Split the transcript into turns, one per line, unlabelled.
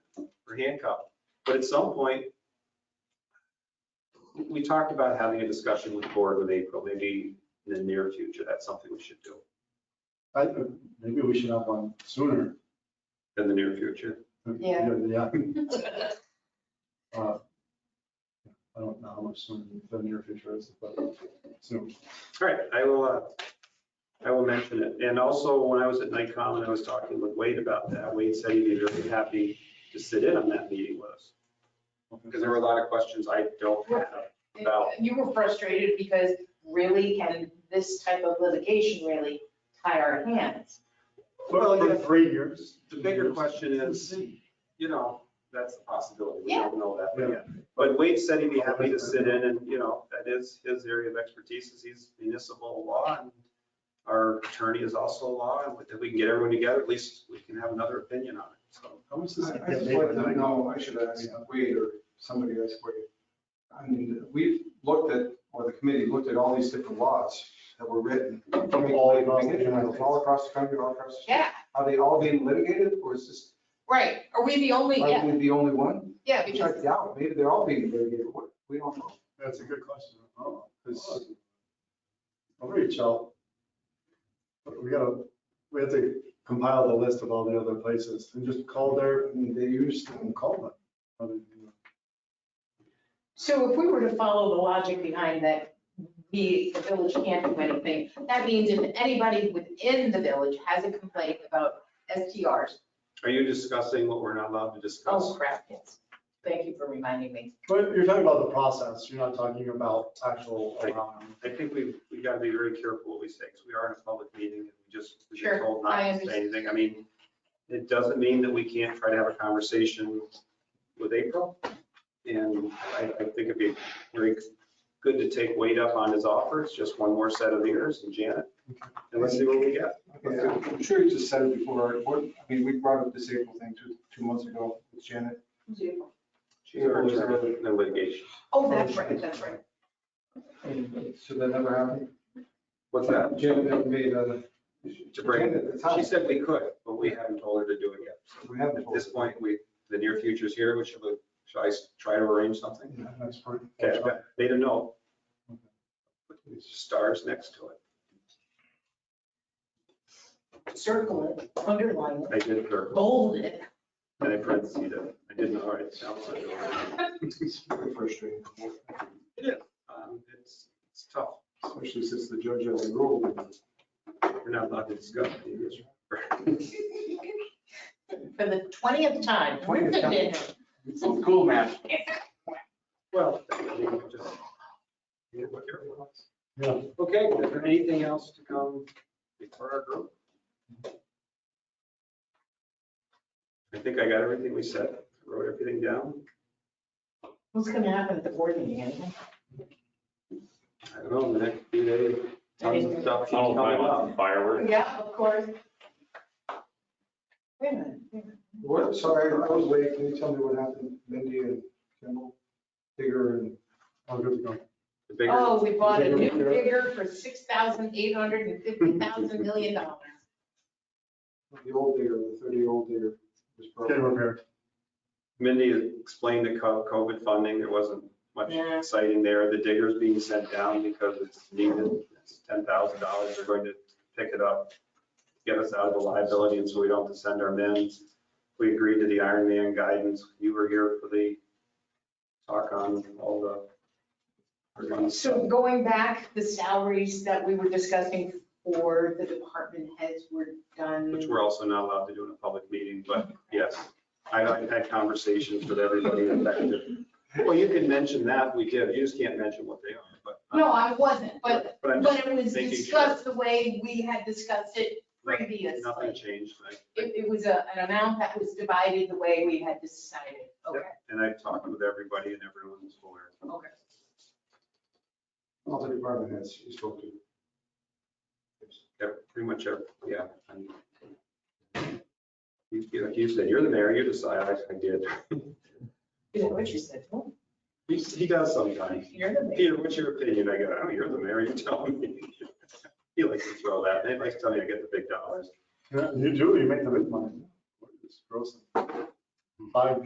or handcuffed. But at some point, we- we talked about having a discussion with the board with April, maybe in the near future, that's something we should do
I, maybe we should have one sooner.
in the near future.
Yeah.
Yeah. Uh, I don't know how much sooner the near future is, but soon.
All right, I will, uh, I will mention it. And also, when I was at NICOM and I was talking with Wade about that, Wade said he'd be very happy to sit in on that meeting with us. Because there were a lot of questions I don't have about,
You were frustrated because really can this type of litigation really tie our hands?
Well, yeah.
three years.
the bigger question is, you know, that's a possibility. We don't know that, but
Yeah.
yeah. But Wade said he'd be happy to sit in and, you know, that is his area of expertise is he's municipal law and our attorney is also law and if we can get everyone together, at least we can have another opinion on it, so.
How much does it
I I
get
just
made?
wanted to know, I should ask Wade or somebody else, Wade. I mean, we've looked at, or the committee looked at all these different laws that were written.
From all across the United States.
All across the country, all across. the-
Yeah,
Are they all being litigated or is this,
right. Are we the only,
are
yeah,
we the only one?
yeah,
Check
because,
it out, maybe they're all being litigated, What- we don't know.
That's a good question. I don't know, 'cause I'll reach out. But we gotta, we have to compile the list of all the other places and just call their,
I mean, they used to.
and call them. I mean, you know.
so if we were to follow the logic behind that, the, the village can't do anything, that means if anybody within the village has a complaint about STRs,
Are you discussing what we're not allowed to
oh
discuss?
crap, yes. Thank you for reminding me.
But you're talking about the process, you're not talking about actual um, around.
I think we've, we've got to be very careful what we say, because we are in a public meeting and we just, we've been
Sure,
told not
I
to say
understand.
anything. I mean, it doesn't mean that we can't try to have a conversation with April. And I, I think it'd be very good to take Wade up on his offers, just one more set of ears and Janet. And let's see what we get.
Yeah, I'm sure you just said it before, or- I mean, we brought up this April thing two, two months ago with Janet.
She's our attorney in litigation.
Oh, that's right, that's right.
Mm-hmm.
Should that never happen?
What's that?
Janet uh, never made a.
To bring,
Janet at the time.
she said we could, but we haven't told her to do it yet.
We have
At this point, we, the near future's here, which should, we- should I s- try to arrange something?
That's pretty.
Okay, I've got- they don't know. Stars next to it.
Circle it, underline it,
I did it,
bold it.
and I parentheses it. I didn't, all right, sounds like.
Frustrating,
Um, It's, it's tough.
especially since the judge has a rule.
We're not allowed to discuss any of this.
For the twentieth time.
20th time. Oh,
Cool, man.
Well, I mean, we just- yeah, what everyone wants.
Yeah.
Okay, is there anything else to come before our group? I think I got everything we said, wrote everything down.
What's gonna happen at the board meeting, anything?
I don't know, in the next few days, tons of stuff keeps
Oh,
coming up.
my fireworks.
Yeah, of course. Wait a minute, wait a minute.
What, sorry, I was late, can you tell me what happened, Mindy and Kimball, Digger and, oh,
I'll go to go.
The bigger-
Oh, we bought a new
Bigger, bigger.
digger for six thousand eight hundred and fifty thousand million dollars.
the old Digger, the thirty-year-old Digger was
Get it
broken.
repaired.
Mindy explained the co- COVID funding, there wasn't much
Yeah.
exciting there. The digger's being sent down because it's needed. It's ten thousand dollars, they're going to pick it up, get us out of the liability, and so we don't have to send our men. We agreed to the Iron Man guidance, you were here for the talk on all the.
So going back, the salaries that we were discussing for the department heads were done.
Which we're also not allowed to do in a public meeting, but yes, I- I've had conversations with everybody affected. Well, you can mention that, we did, you just can't mention what they are, but.
No, I wasn't, but,
But I'm just
but it was
making sure.
discussed the way we had discussed it previously.
Nothing changed, I-
It, it was a, an amount that was divided the way we had decided. Okay,
and I've talked with everybody and everyone's aware.
okay.
All the department heads you spoke to.
Yeah, Pretty much, every- yeah. and- You, you- like you said, you're the mayor, you decide, I I did.
Is that what you said? Well,
He, he does sometimes.
You're the mayor.
Peter, what's your opinion? I go, oh, you're the mayor, you tell me. He likes to throw that, he likes to tell me I get the big dollars.
Yeah, You do, you make the big money. It's gross. Five